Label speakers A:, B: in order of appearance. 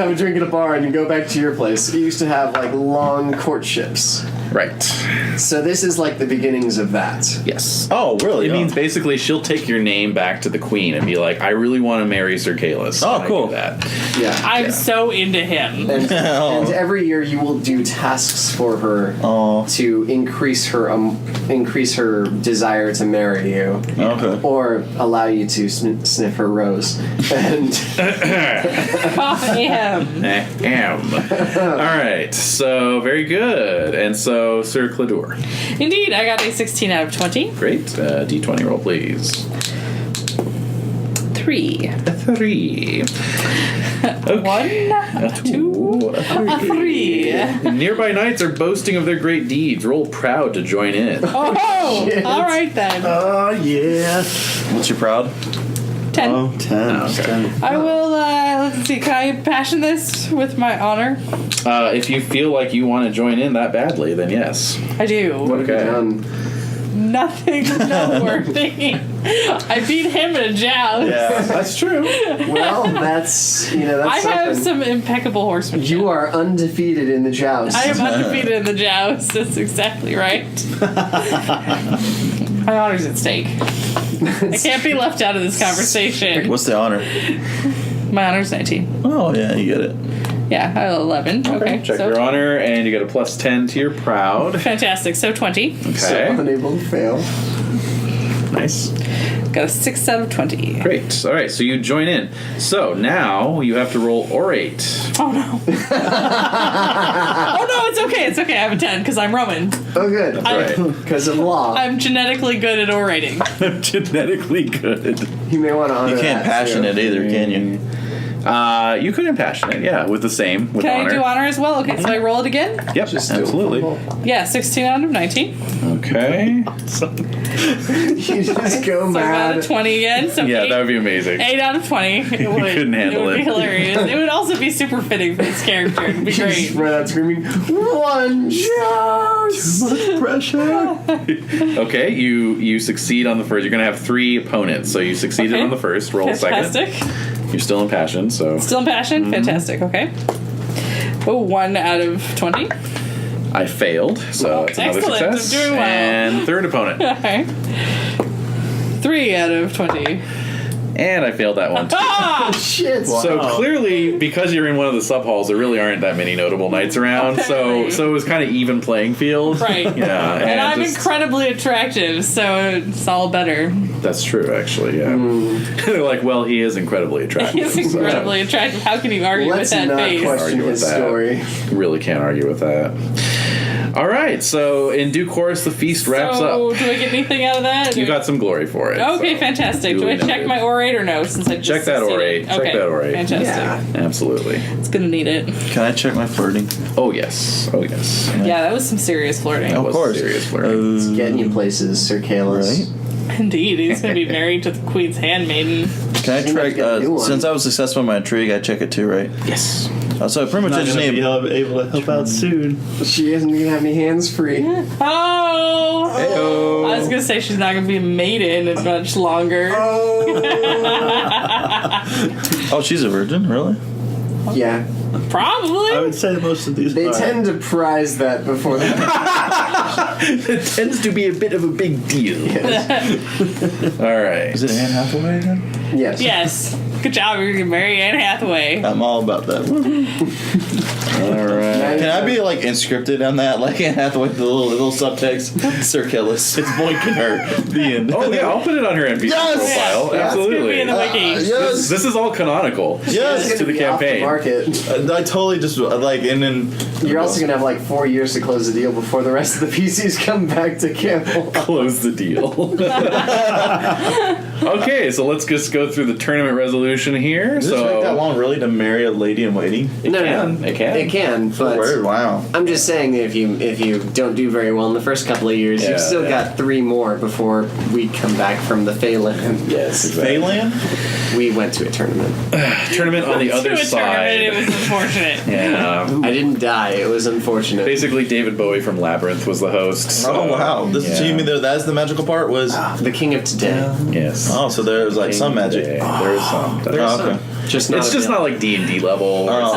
A: have a drink at a bar and you go back to your place. You used to have like long courtships.
B: Right.
A: So this is like the beginnings of that.
B: Yes.
C: Oh, really?
B: It
C: Oh.
B: means basically she'll take your name back to the queen and be like, "I really want to marry Sir Kalis."
C: Oh,
B: And I do
C: cool.
B: That.
A: Yeah.
D: I'm so into him.
A: And,
C: Oh.
A: and every year you will do tasks for her
C: Oh.
A: to increase her um, increase her desire to marry you.
C: Okay.
A: Or allow you to sn- sniff her rose, and
D: I am.
B: Ahem. Eh, All right. So very good. And so Sir Cladur.
D: Indeed, I got a 16 out of 20.
B: Great. Uh, D20 roll, please.
D: Three.
B: A three.
D: One.
B: A two. A three.
D: A three.
B: Nearby knights are boasting of their great deeds. Roll proud to join in.
D: Oh, all right then.
C: Uh,
E: Oh, yeah.
C: What's your proud?
D: Ten.
C: uh,
E: Oh, 10.
B: Oh, okay.
E: 10.
D: I will, uh, let's see, can I passion this with my honor?
B: Uh, if you feel like you want to join in that badly, then yes.
D: I do.
B: Okay.
A: um,
D: Nothing noteworthy. I beat him in a joust.
C: Yeah.
B: That's true.
A: well, that's you know that's
D: I have
A: something.
D: some impeccable horsemanship.
A: You are undefeated in the joust.
D: I am undefeated in the joust. That's exactly right. My honor's at stake. I can't be left out of this conversation.
C: What's the honor?
D: My honor's 19.
C: Oh, yeah, you get it.
D: Yeah, I have 11. Okay,
B: Check
D: so
B: your honor, and you get a plus 10 to your proud.
D: fantastic. So 20.
A: so
B: Okay.
A: unable to fail.
B: Nice.
D: Got a 6 out of 20.
B: Great. All right, so you join in. So now you have to roll orate.
D: Oh no. oh no, it's okay. It's okay. I have a 10 because I'm Roman.
A: Oh, good,
B: Right.
A: because of law,
D: I'm genetically good at orating.
B: Genetically good.
A: you may want to honor
C: You can't
A: that,
C: passion
A: too.
C: it either, can you?
B: Uh, you could impassionate, yeah, with the same, with
D: Can
B: honor.
D: I do honor as well? Okay, so I roll it again.
B: Yep,
A: Just do it.
B: absolutely.
D: Yeah, 16 out of 19. So
B: Okay.
A: You just go
D: I got a
A: mad.
D: 20 again. So
B: Yeah,
D: eight,
B: that would be amazing.
D: eight out of 20. It would,
B: couldn't handle
D: it. would
B: it.
D: be hilarious. it would also be super fitting for this character. It would be
A: You just
D: great.
A: run out screaming, one joust.
C: Pressure.
B: Okay, you you succeed on the first. You're gonna have three opponents, so you succeeded
D: Okay.
B: on the first. Roll second. Mm-hmm.
D: Fantastic.
B: You're still impassioned, so
D: Still impassioned? Fantastic. Okay. Oh, one out of 20.
B: I failed. So it's another
D: excellent, I'm
B: success.
D: doing well.
B: And third opponent,
D: Okay. Three out of 20.
B: and I failed that one. too.
D: Ah!
A: Shit.
B: So clearly, because you're in one of the sub halls, there really aren't that many notable knights around. So
D: Apparently.
B: so it was kind of even playing field.
D: Right.
B: Yeah,
D: And, I'm
B: just-
D: incredibly attractive, so it's all better.
B: That's true, actually. Yeah.
E: Hmm.
B: They're like, well, he is incredibly attractive.
D: He's
B: so
D: incredibly attractive. How can you argue
A: Let's
D: with that
A: not
D: face?
A: question
B: Argue with
A: his
B: that.
A: story.
B: really can't argue with that. All right, so in due course, the feast wraps
D: so,
B: up.
D: do I get anything out of that?
B: You got some glory for it.
D: Okay,
B: so.
D: fantastic. Do I
B: Duly
D: check
B: noted.
D: my orate or no? Since I just
B: Check that
D: succeeded?
B: orate. Check
D: Okay,
B: that orate.
D: Fantastic.
A: Yeah.
B: Absolutely.
D: It's gonna need it.
C: Can I check my flirting?
B: Oh yes. Oh yes.
D: Yeah, that was some serious flirting.
B: That
C: Of
B: was
C: course.
E: Uh,
B: serious flirting.
A: It's getting you places, Sir Kalos.
D: Indeed, he's gonna be married to the queen's handmaiden.
C: Can I
A: Seems like you
C: check?
A: got a new
C: Uh,
A: one.
C: since I was successful in my intrigue, I check it too, right?
B: yes.
C: Uh, so pretty much I
E: Not
C: just
E: gonna be
C: need. Mm.
E: able able to help out soon.
A: She isn't gonna have any hands free.
D: Oh! I was gonna say she's not gonna be a maiden in much longer.
C: Oh, she's a virgin, really?
A: yeah.
D: Probably.
B: Uh,
E: I would say most of these
A: They
E: are.
A: tend to prize that before they
B: It tends to be a bit of a big deal. All right.
C: Is it Anne Hathaway again?
A: Yes.
D: yes. Good job. You're gonna marry Anne Hathaway.
C: I'm all about that.
B: All right.
C: Can I be like inscripted on that, like Anne Hathaway, the little, little subtext? Sir Killis, it's boinking her. The end.
B: Oh yeah, I'll put it on her NPC
C: Yes!
B: profile.
A: Yeah.
D: It's gonna be
B: Absolutely.
D: in the wiki.
B: This,
C: Yes,
B: this is all canonical.
A: It's
C: yes.
A: gonna
B: To the
A: be off
B: campaign.
A: market.
C: I, I totally just uh, like, and then
A: You're also gonna have like four years to close the deal before the rest of the PCs come back to Campbell.
B: Close the deal. okay, so let's just go through the tournament resolution here.
C: Does it
B: so
C: take that long really to marry a lady in waiting?
B: It
A: No, no,
B: can. It can.
A: It can, but
C: Wow.
A: I'm just saying that if you if you don't do very well in the first couple of years,
B: Yeah,
A: you've still
B: yeah.
A: got three more before we come back from the Phelan.
B: Yes. Exactly.
C: Phelan?
A: We went to a tournament.
B: Tournament on the other
D: to a tournament, it
B: side.
D: was unfortunate.
B: Yeah.
A: I didn't die. It was unfortunate.
B: Basically, David Bowie from Labyrinth was the host. so-
C: Oh wow! This
B: Yeah. Ah.
C: so you mean there, that's the magical part was
A: the king of today.
B: Yes.
C: oh so there was like some magic.
B: There's some.
C: Oh, okay.
A: Just not
B: It's just
A: available.
B: not like D and D level. where it's
C: uh, Oh.